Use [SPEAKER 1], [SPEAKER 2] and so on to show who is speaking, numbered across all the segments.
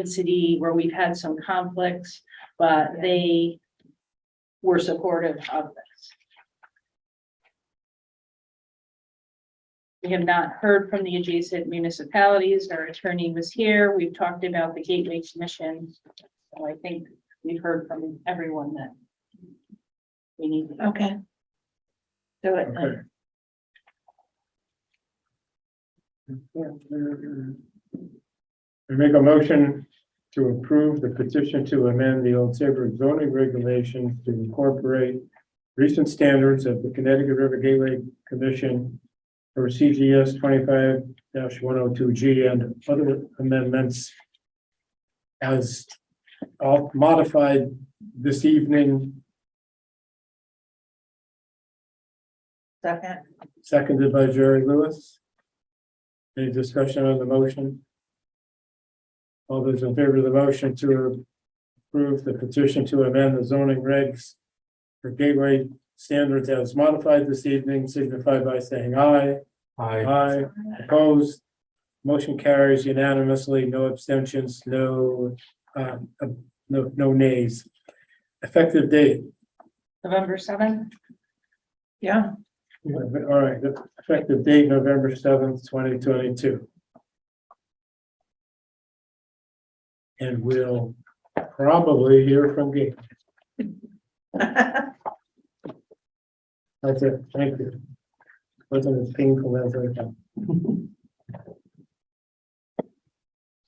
[SPEAKER 1] density where we've had some conflicts, but
[SPEAKER 2] Yeah.
[SPEAKER 1] they were supportive of this. We have not heard from the adjacent municipalities. Our attorney was here. We've talked about the Gateway Commission. So I think we've heard from everyone that we need. to-
[SPEAKER 2] Okay. Do it.
[SPEAKER 3] Okay. I make a motion to approve the petition to amend the Old Saybrook zoning regulations to incorporate recent standards of the Connecticut River Gateway Commission for CGS twenty-five one oh two G and other amendments as all modified this evening,
[SPEAKER 2] Second.
[SPEAKER 3] seconded by Jerry Lewis. Any discussion on the motion? All those in favor of the motion to approve the petition to amend the zoning regs for gateway standards as modified this evening signify by saying aye.
[SPEAKER 4] I,
[SPEAKER 3] Aye, opposed. Motion carries unanimously, no abstentions, no, um, uh, no, no nays. Effective date,
[SPEAKER 1] November seventh,
[SPEAKER 2] Yeah,
[SPEAKER 3] all right, effective date, November seventh, twenty twenty-two. And we'll probably hear from Gabe. That's it, thank you. Wasn't as painful as I thought.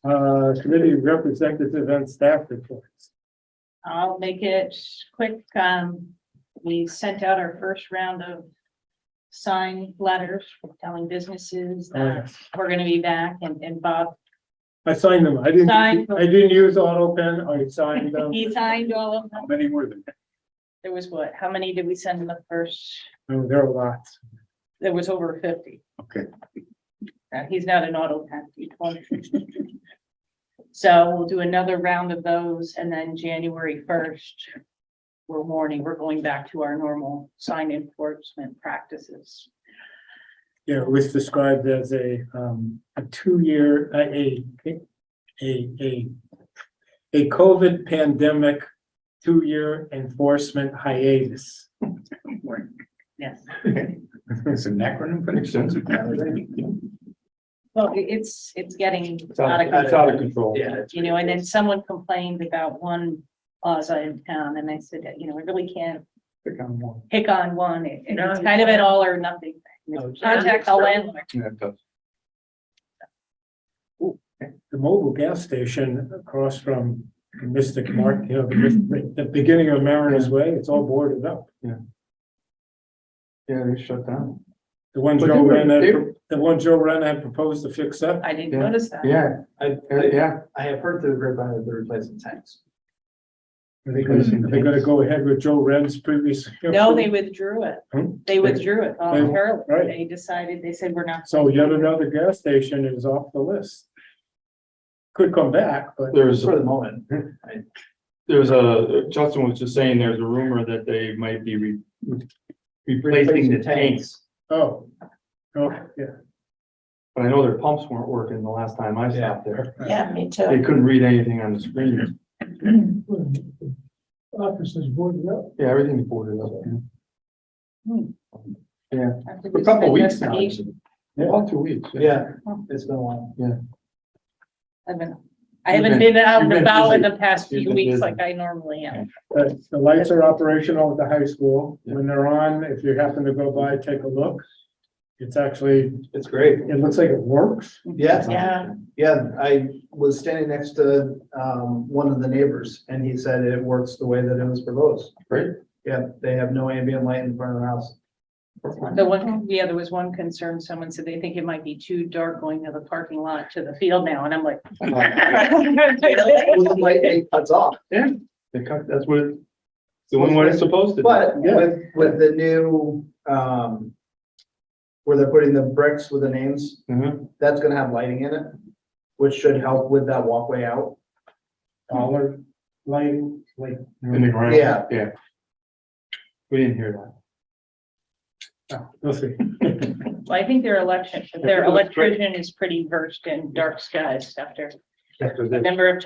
[SPEAKER 3] Uh, committee representative and staff reports.
[SPEAKER 1] I'll make it quick. Um, we sent out our first round of sign letters telling businesses
[SPEAKER 3] Oh,
[SPEAKER 1] that we're gonna be back and, and Bob,
[SPEAKER 3] I signed them, I didn't,
[SPEAKER 1] Signed.
[SPEAKER 3] I didn't use auto pen, I signed them.
[SPEAKER 1] he signed all of them.
[SPEAKER 3] How many were there?
[SPEAKER 1] There was what, how many did we send in the first?
[SPEAKER 3] Oh, There are lots.
[SPEAKER 1] There was over fifty.
[SPEAKER 4] Okay.
[SPEAKER 1] And he's not an auto pack. he's one. So we'll do another round of those and then January first. We're warning, we're going back to our normal sign enforcement practices.
[SPEAKER 3] Yeah, it was described as a, um, a two-year, a, a, a, a, a COVID pandemic, two-year enforcement hiatus.
[SPEAKER 1] Yes.
[SPEAKER 4] it's an acronym, but it's sensitive.
[SPEAKER 1] Well, i- it's, it's getting
[SPEAKER 4] It's
[SPEAKER 1] out of
[SPEAKER 4] it's
[SPEAKER 1] control,
[SPEAKER 4] of control. Yeah.
[SPEAKER 1] you know, and then someone complained about one plaza in town and I said, you know, I really can't
[SPEAKER 4] Pick on one.
[SPEAKER 1] pick on one. It-
[SPEAKER 2] No,
[SPEAKER 1] It's
[SPEAKER 2] you
[SPEAKER 1] kind of an
[SPEAKER 2] can't.
[SPEAKER 1] all or nothing. thing.
[SPEAKER 3] No, it's-
[SPEAKER 1] Contact the landlord.
[SPEAKER 4] Yeah, it does.
[SPEAKER 3] the mobile gas station across from Mystic Mark, you know, the, the beginning of Mariners Way, it's all boarded up.
[SPEAKER 4] Yeah, they shut down.
[SPEAKER 3] The one
[SPEAKER 4] But they
[SPEAKER 3] Joe
[SPEAKER 4] were-
[SPEAKER 3] Ren,
[SPEAKER 4] they
[SPEAKER 3] had-
[SPEAKER 4] were-
[SPEAKER 3] the one Joe Ren had proposed to fix up.
[SPEAKER 1] I didn't
[SPEAKER 4] Yeah.
[SPEAKER 1] notice that.
[SPEAKER 4] Yeah,
[SPEAKER 5] I,
[SPEAKER 4] uh,
[SPEAKER 5] I,
[SPEAKER 4] yeah.
[SPEAKER 5] I have heard through the grapevine that they're replacing tanks.
[SPEAKER 3] Are they gonna,
[SPEAKER 4] Mhm.
[SPEAKER 3] they gonna go ahead with Joe Ren's previous?
[SPEAKER 1] No, they withdrew it.
[SPEAKER 3] Hmm?
[SPEAKER 1] They withdrew it voluntarily.
[SPEAKER 3] right.
[SPEAKER 1] They decided, they said, we're not.
[SPEAKER 3] So yet another gas station is off the list. Could come back, but
[SPEAKER 6] There's,
[SPEAKER 5] For the moment,
[SPEAKER 6] there's a, Justin was just saying, there's a rumor that they might be re- replacing the tanks.
[SPEAKER 3] oh, oh, yeah.
[SPEAKER 6] But I know their pumps weren't working the last time I stopped there.
[SPEAKER 2] yeah, me
[SPEAKER 6] They
[SPEAKER 2] too.
[SPEAKER 6] couldn't read anything on the screen.
[SPEAKER 3] Offices boarded up.
[SPEAKER 6] Yeah, everything's boarded up.
[SPEAKER 1] after
[SPEAKER 6] A
[SPEAKER 1] this
[SPEAKER 6] couple weeks now.
[SPEAKER 1] investigation,
[SPEAKER 6] About two weeks.
[SPEAKER 5] yeah, it's been a while.
[SPEAKER 1] I've been, I
[SPEAKER 6] You've
[SPEAKER 1] haven't
[SPEAKER 6] been-
[SPEAKER 1] been out
[SPEAKER 6] you've
[SPEAKER 1] and
[SPEAKER 6] been
[SPEAKER 1] about in
[SPEAKER 6] busy.
[SPEAKER 1] the past
[SPEAKER 6] You've
[SPEAKER 1] few
[SPEAKER 6] been
[SPEAKER 1] weeks
[SPEAKER 6] busy.
[SPEAKER 1] like I normally am.
[SPEAKER 3] The, Uh, the lights are operational at the high school.
[SPEAKER 6] Yeah.
[SPEAKER 3] When they're on, if you happen to go by, take a look. It's actually,
[SPEAKER 5] It's great.
[SPEAKER 3] it looks like it works.
[SPEAKER 5] Yeah,
[SPEAKER 2] Yeah.
[SPEAKER 5] yeah. I was standing next to, um, one of the neighbors and he said it works the way that it was proposed.
[SPEAKER 6] Great.
[SPEAKER 5] Yeah, they have no ambient light in front of their house.
[SPEAKER 1] The one, yeah, there was one concern. Someone said they think it might be too dark going to the parking lot to the field now. And I'm like,
[SPEAKER 5] Well, the light it cuts off.
[SPEAKER 6] They cut, that's what, it- doing what it's supposed to. do.
[SPEAKER 5] But with, with the new, um, where they're putting the bricks with the names,
[SPEAKER 6] Mhm.
[SPEAKER 5] that's gonna have lighting in it, which should help with that walkway out.
[SPEAKER 3] Collar lighting, like,
[SPEAKER 6] In the ground.
[SPEAKER 5] Yeah.
[SPEAKER 6] Yeah. We didn't hear that.
[SPEAKER 3] oh, we'll see.
[SPEAKER 1] well, I think their election, their electrician is pretty versed in dark skies after
[SPEAKER 6] After
[SPEAKER 1] a
[SPEAKER 6] this.
[SPEAKER 1] number of